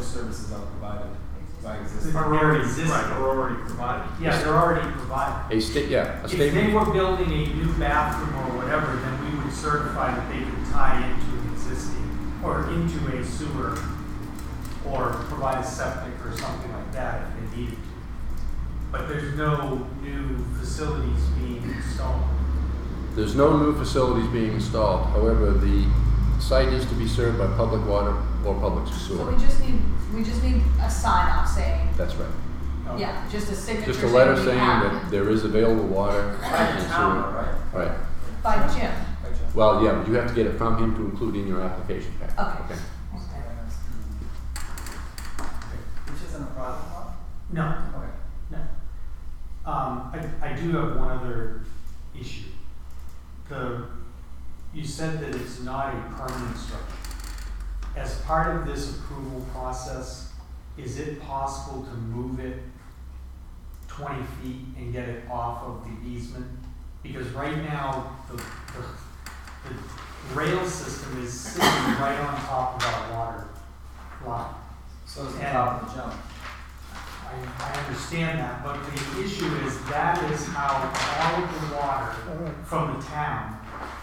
services are provided by existing. Are already existing. Right, are already provided. Yeah, they're already provided. A state, yeah, a If they statement. were building a new bathroom or whatever, then we would certify that they could tie into an existing or into a sewer or provide a septic or something like that if they needed to. But there's no new facilities being installed. There's no new facilities being installed. However, the site is to be served by public water or public So sewer. we just need, we just need a sign off saying, That's right. Okay. yeah, just a signature Oh. Just a saying letter we saying have that it there is available water By and the town, sewer. right? Right. by Jim. By Jeff. Well, yeah, but you have to get it from him to include in your application packet. Okay. Which isn't a problem, huh? No, Okay. no. Um, I, I do have one other issue. The, you said that it's not a permanent structure. As part of this approval process, is it possible to move it twenty feet and get it off of the easement? Because right now, the, the, the rail system is sitting right on top of our water line. So it's the And- top of the jump. I, I understand that, but the issue is that is how all of the water from the town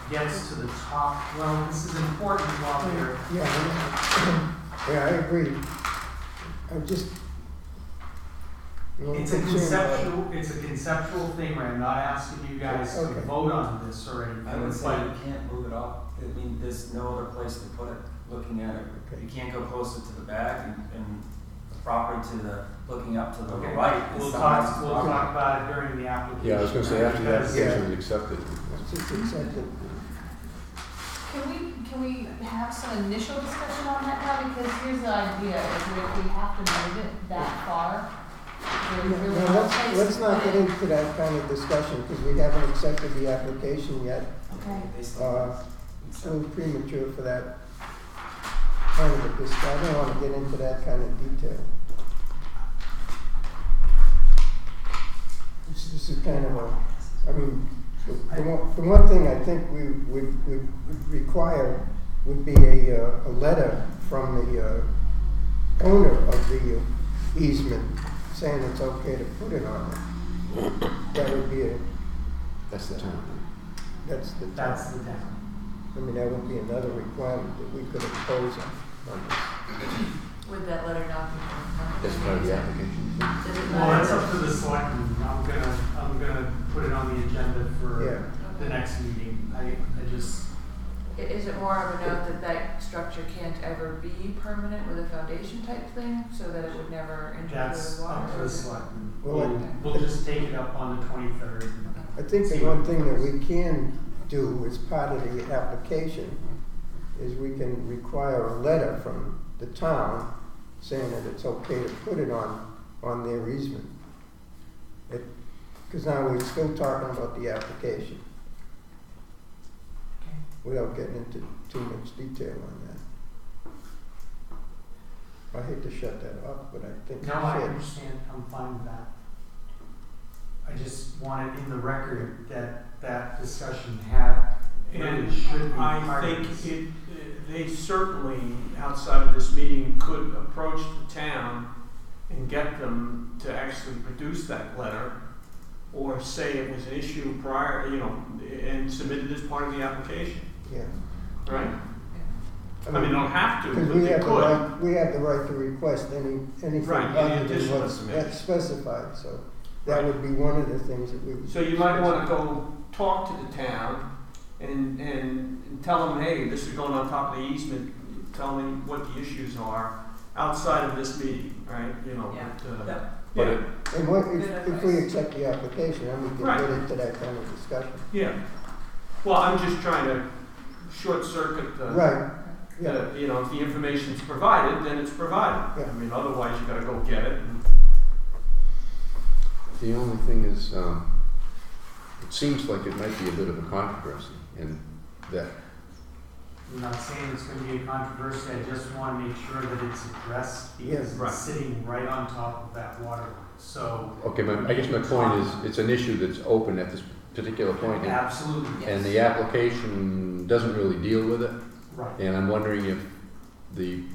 gets to the top. Well, this is important while we're, Yeah, I- yeah, I agree. I'm just. little it's a concerned about it. conceptual, it's a conceptual thing, right? I'm not asking you guys to Okay. vote on this or I would anything, say you but, can't move it off, I mean, there's no other place to put it, looking at it. Okay. You can't go closer to the back and, and the property to the, looking up to the okay, right. is we'll someone else's talk, we'll property. talk about it during the application. Yeah, I was gonna say, after the because- application is accepted. It's just accepted. Can we, can we have some initial discussion on that now? Because here's the idea, is that if we have to move it that far, there's No, really no, no place to let's, let's not put get it. into that kind of discussion, because we haven't accepted the application yet. Okay, They Uh, still. It's a little premature for that kind of a discussion. I don't wanna get into that kind of detail. This, this is kind of a, I mean, the, the one, the one thing I think we would, would would require would be a, uh, a letter from the, uh, owner of the easement saying it's okay to put it on it. That would be a, That's the town. that's the. That's the town. I mean, that would be another requirement that we could impose on, on this. Would that letter not be? That's part of the application. Does it Well, that's up matter? to the selectmen. I'm gonna, I'm gonna put it on the agenda for Yeah, the next meeting. I, I just, I- Is it more of a note that that structure can't ever be permanent with a foundation type thing, so that it would never interfere with That's up to water? the selectmen. Well, We'll, we'll just take it up on the twenty-third. I think the one thing that we can do as part of the application is we can require a letter from the town saying that it's okay to put it on, on their easement. Because now we're still talking about the application Okay. without getting into too much detail on that. I hate to shut that off, but I think we No, I should. understand, I'm fine with that. I just want it in the record that that discussion had, And really should be I part of think this. it, they certainly, outside of this meeting, could approach the town and get them to actually produce that letter or say it was an issue prior, you know, and submitted as part of the application, Yeah. right? I mean, they don't have to, Because but we they have the could. right, we have the right to request any, anything Right, any other than additional what's information. that's specified, so that Right. would be one of the things that we would. So you might wanna go talk to the town and, and and tell them, hey, this is going on top of the easement, tell me what the issues are outside of this meeting, right, you know, Yeah. but, uh, Yeah. But yeah, it- And what, if, Good if we advice. accept the application, then we can Right. get into that kind of discussion. yeah. Well, I'm just trying to short circuit the, Right, yeah, the, you know, if the information's provided, then it's provided. Yeah. I mean, otherwise you gotta go get it and The only thing is, um, it seems like it might be a bit of a controversy and that, I'm not saying it's gonna be a controversy, I just wanna make sure that it's addressed because Yeah, right. it's sitting right on top of that water line, so. okay, my, I guess my point is, it's an issue that's open at this particular point and, Absolutely, and the application doesn't really deal with it. right. And I'm wondering if the